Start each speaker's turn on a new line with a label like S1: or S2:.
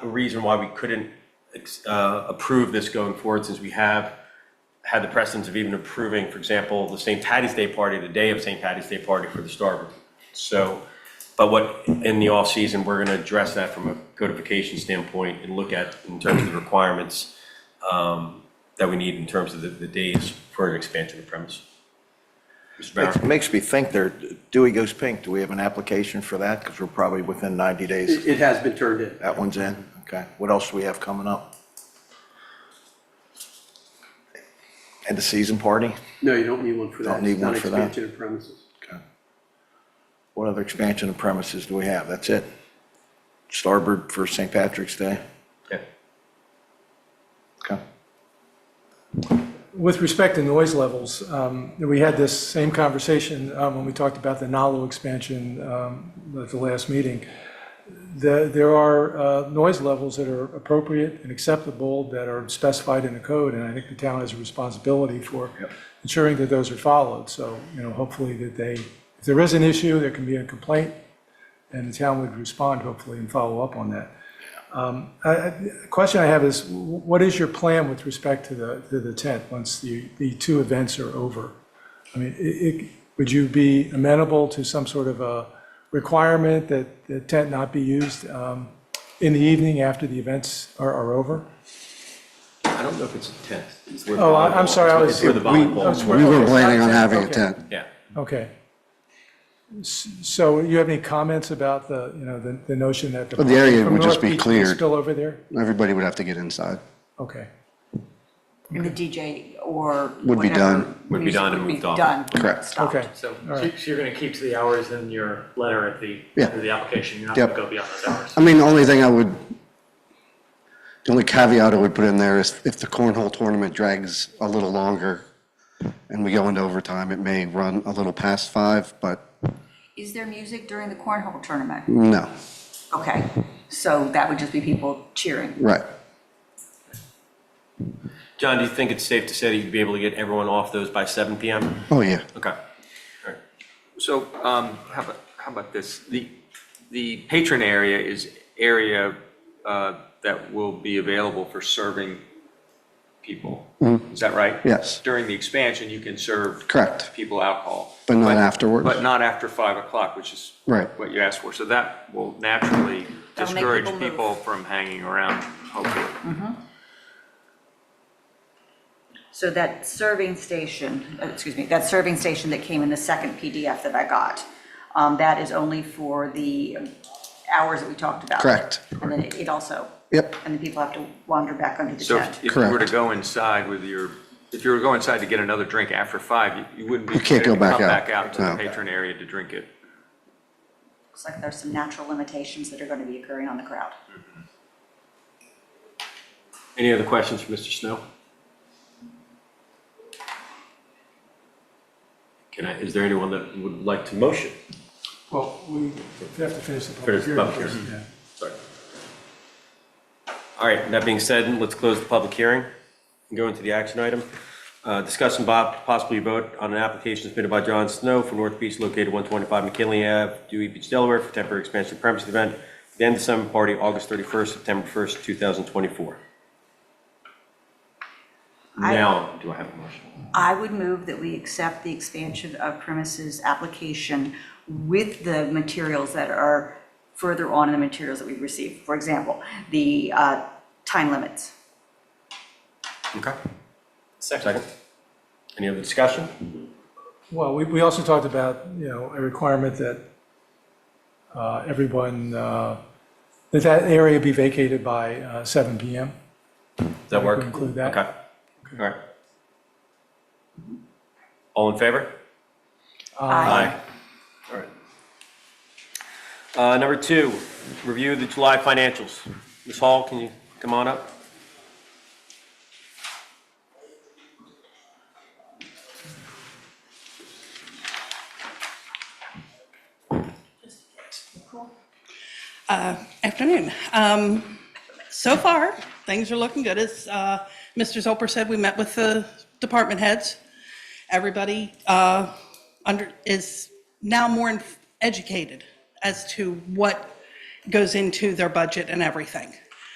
S1: a reason why we couldn't ex- uh, approve this going forward, since we have had the precedence of even approving, for example, the St. Patty's Day party, the day of St. Patty's Day party for the Starbird. So, but what, in the off-season, we're gonna address that from a codification standpoint and look at in terms of the requirements um, that we need in terms of the, the days for an expansion of premise. Mr. Barron?
S2: It makes me think there, Dewey Goes Pink, do we have an application for that? Because we're probably within 90 days.
S3: It it has been turned in.
S2: That one's in, okay. What else do we have coming up? And the season party?
S3: No, you don't need one for that.
S2: Don't need
S3: It's
S2: one
S3: not
S2: for that.
S3: expansion of premises.
S2: Okay. What other expansion of premises do we have? That's it? Starboard for St. Patrick's Day?
S1: Yeah.
S2: Okay.
S4: With respect to noise levels, um, we had this same conversation um, when we talked about the Nalu expansion um, at the last meeting. The- There are uh, noise levels that are appropriate and acceptable that are specified in the code, and I think the town has a responsibility for ensuring that those are followed. So, you know, hopefully that they, if there is an issue, there can be a complaint, and the town would respond hopefully and follow up on that. I- I- The question I have is, what is your plan with respect to the, to the tent once the, the two events are over? I mean, i- i- would you be amenable to some sort of a requirement that the tent not be used um, in the evening after the events are, are over?
S1: I don't know if it's a tent. It's where the
S4: Oh, I-
S1: volleyball-
S4: I'm sorry, I was.
S1: It's where the
S4: I was-
S1: volleyball,
S5: We were planning on
S4: okay.
S5: having a
S4: Okay.
S5: tent.
S1: yeah.
S4: Okay. S- So you have any comments about the, you know, the, the notion that the.
S5: Well, the area
S4: from
S5: would just
S4: North
S5: be
S4: Beach can
S5: cleared.
S4: Spill over there?
S5: Everybody would have to get inside.
S4: Okay.
S6: And the DJ or.
S5: Would be
S6: whatever
S5: done.
S1: Would be
S6: music
S1: done and
S6: would be
S1: moved on.
S6: done,
S5: Correct.
S6: stopped.
S4: Okay.
S7: So
S4: All right.
S7: so you're going to keep to the hours in your letter at the,
S5: Yeah.
S7: end of the application, you're not going to
S5: Yep.
S7: go beyond those hours?
S5: I mean, the only thing I would, the only caveat I would put in there is if the cornhole tournament drags a little longer and we go into overtime, it may run a little past five, but
S6: Is there music during the cornhole tournament?
S5: no,
S6: Okay, so that would just be people cheering.
S5: right.
S1: John, do you think it's safe to say that you'd be able to get everyone off those by seven PM?
S5: Oh, yeah.
S1: Okay. All right.
S8: So um, how about, how about this? The, the patron area is area uh, that will be available for serving people.
S5: Mm-hmm.
S8: Is that right?
S5: Yes.
S8: During the expansion, you can serve.
S5: Correct.
S8: People alcohol.
S5: But not afterwards.
S8: But not after 5 o'clock, which is.
S5: Right.
S8: What you asked for. So that will naturally
S6: That'll make
S8: discourage
S6: people move.
S8: people from hanging around, hopefully.
S6: So that serving station, uh, excuse me, that serving station that came in the second PDF that I got, um, that is only for the hours that we talked about.
S5: Correct.
S6: And then it it also.
S5: Yep.
S6: And the people have to wander back under the
S8: So
S6: tent.
S8: if if you were to
S5: Correct.
S8: go inside with your, if you were to go inside to get another drink after five, you- you wouldn't be.
S5: You can't go
S8: permitted to
S5: back out.
S8: Come back out to the
S5: No.
S8: patron area to drink it.
S6: Looks like there's some natural limitations that are going to be occurring on the crowd.
S1: Any other questions for Mr. Snow? Can I, is there anyone that would like to motion?
S4: Well, we have to finish the
S1: Finish the
S4: public hearing.
S1: public
S4: first,
S1: hearing.
S4: yeah.
S1: Sorry. All right, that being said, let's close the public hearing and go into the action item. Uh, Discuss and Bob possibly vote on an application submitted by John Snow for North Beach located 125 McKinley Ave, Dewey Beach, Delaware for temporary expansion of premises event, the end of summer party, August 31st, September 1st, 2024.
S6: I-
S1: Now, do I have a motion?
S6: I would move that we accept the expansion of premises application with the materials that are further on in the materials that we've received. For example, the uh, time limits.
S1: Okay. Second. Any other discussion?
S4: Well, we, we also talked about, you know, a requirement that uh, everyone, uh, that that area be vacated by uh, 7 PM.
S1: Does that work?
S4: Include that.
S1: Okay. All right. All in favor? Aye. All right. Uh, Number two, review the July financials. Ms. Hall, can you come on up?
S9: Uh, Afternoon. Um, So far, things are looking good. As uh, Mr. Zolper said, we met with the department heads. Everybody uh, under, is now more in- educated as to what goes into their budget and everything.